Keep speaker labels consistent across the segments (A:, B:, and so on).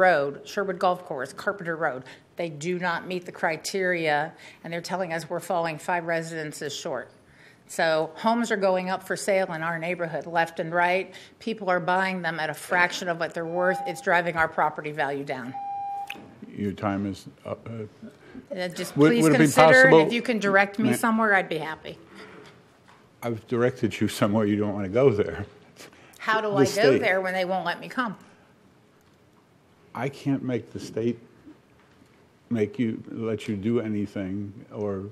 A: Road, Sherwood Golf Course, Carpenter Road. They do not meet the criteria, and they're telling us we're falling five residences short. So homes are going up for sale in our neighborhood, left and right. People are buying them at a fraction of what they're worth. It's driving our property value down.
B: Your time is up. Uh,
A: And Just
B: Would-
A: please
B: would it be
A: consider, and
B: possible-
A: if you can direct me
B: Ma-
A: somewhere, I'd be happy.
B: I've directed you somewhere you don't want to go there.
A: How do
B: The
A: I go
B: state.
A: there when they won't let me come?
B: I can't make the state make you, let you do anything or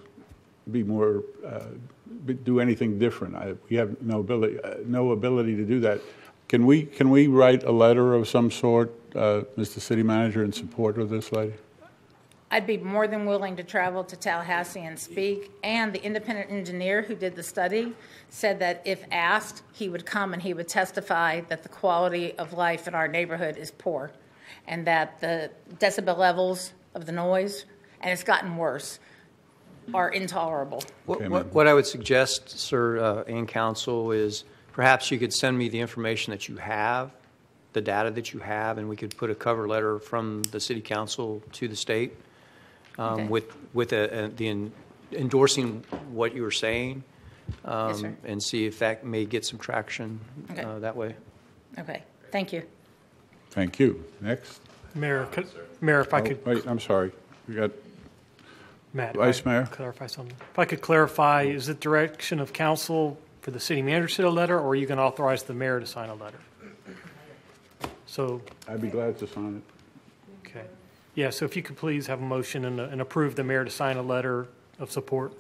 B: be more, uh, be- do anything different. I- We have no ability, uh, no ability to do that. Can we, can we write a letter of some sort, uh, Mr. City Manager, in support of this lady?
A: I'd be more than willing to travel to Tallahassee and speak. And the independent engineer who did the study said that if asked, he would come and he would testify that the quality of life in our neighborhood is poor and that the decibel levels of the noise, and it's gotten worse, are intolerable.
B: Okay,
C: What,
B: ma'am.
C: what, what I would suggest, sir, uh, and council, is perhaps you could send me the information that you have, the data that you have, and we could put a cover letter from the city council to the state um,
A: Okay.
C: with, with a, a, the en- endorsing what you were saying, um,
A: Yes, sir.
C: and see if that may get some traction
A: Okay.
C: uh, that way.
A: Okay, thank you.
B: Thank you. Next.
D: Mayor, could, Mayor, if I could,
B: Oh, Wait, I'm sorry. We got,
D: Matt.
B: Vice
D: if I
B: Mayor.
D: could Clarify something. If I could clarify, is it direction of council for the city manager to send a letter, or are you going to authorize the mayor to sign a letter? So,
B: I'd be glad to sign it.
D: okay. Yeah, so if you could please have a motion and, and approve the mayor to sign a letter of support.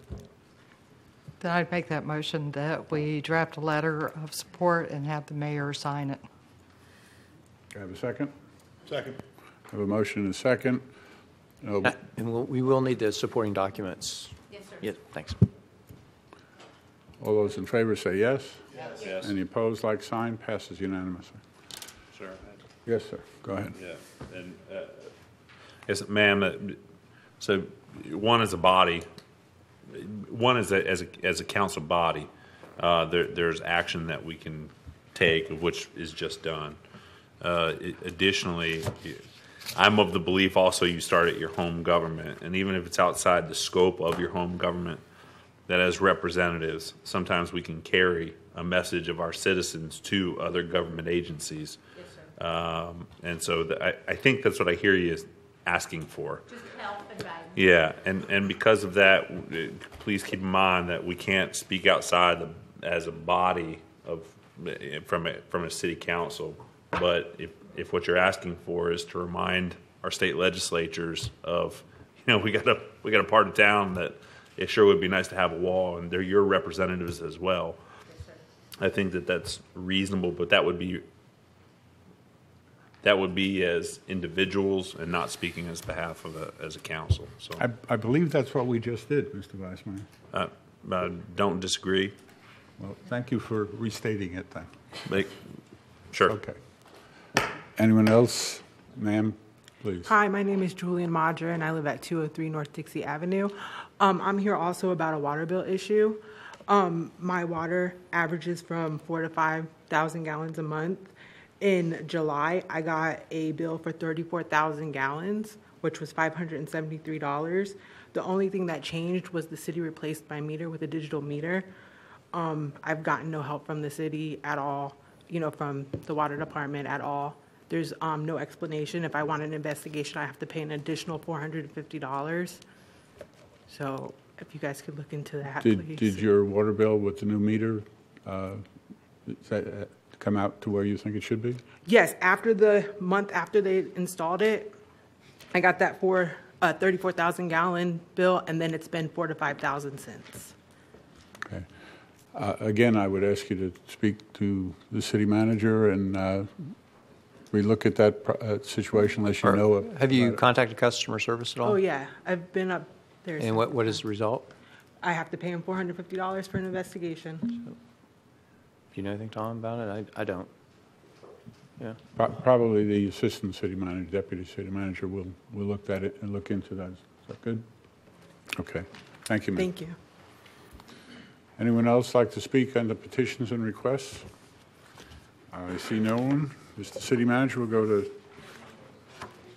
E: Then I'd make that motion that we draft a letter of support and have the mayor sign it.
B: Do I have a second? Second. Have a motion and a second. No,
C: Uh, And we'll, we will need the supporting documents. Yes, sir. Yeah, thanks.
B: All those in favor say yes. Yes. Any opposed, like sign, passes unanimously.
F: Sure.
B: Yes, sir. Go ahead.
F: Yeah, and, uh, yes, ma'am, uh, so one is a body, one is a, as a, as a council body, uh, there, there's action that we can take, of which is just done. Uh, i- additionally, I'm of the belief also you start at your home government, and even if it's outside the scope of your home government, that as representatives, sometimes we can carry a message of our citizens to other government agencies. Um, and so the, I, I think that's what I hear you is asking for. Yeah, and, and because of that, w- uh, please keep in mind that we can't speak outside the, as a body of, uh, from a, from a city council. But if, if what you're asking for is to remind our state legislatures of, you know, we got a, we got a part of town that it sure would be nice to have a wall, and they're your representatives as well. I think that that's reasonable, but that would be, that would be as individuals and not speaking as behalf of a, as a council, so.
B: I, I believe that's what we just did, Mr. Vice Mayor.
F: Uh, I don't disagree.
B: Well, thank you for restating it then.
F: Like, sure.
B: Okay. Anyone else? Ma'am, please.
G: Hi, my name is Julian Madra, and I live at 203 North Dixie Avenue. Um, I'm here also about a water bill issue. Um, my water averages from four to 5,000 gallons a month. In July, I got a bill for 34,000 gallons, which was $573. The only thing that changed was the city replaced my meter with a digital meter. Um, I've gotten no help from the city at all, you know, from the water department at all. There's um, no explanation. If I want an investigation, I have to pay an additional $450. So if you guys could look into that,
B: Did,
G: please.
B: did your water bill with the new meter, uh, is that, uh, come out to where you think it should be?
G: Yes, after the month after they installed it, I got that for a 34,000 gallon bill, and then it's been four to 5,000 since.
B: Okay. Uh, Again, I would ask you to speak to the city manager and uh, we look at that pro- uh, situation unless you know. it.
C: Have you contacted customer service at all?
G: Oh, yeah, I've been up there.
C: And what, what is the result?
G: I have to pay him $450 for an investigation.
B: Mm.
C: Do you know anything, Tom, about it? I, I don't. Yeah.
B: Pro- Probably the assistant city manager, deputy city manager will, will look at it and look into that. Is that good? Okay. Thank you, ma'am.
G: Thank you.
B: Anyone else like to speak on the petitions and requests? I see no one. Mr. City Manager, we'll go to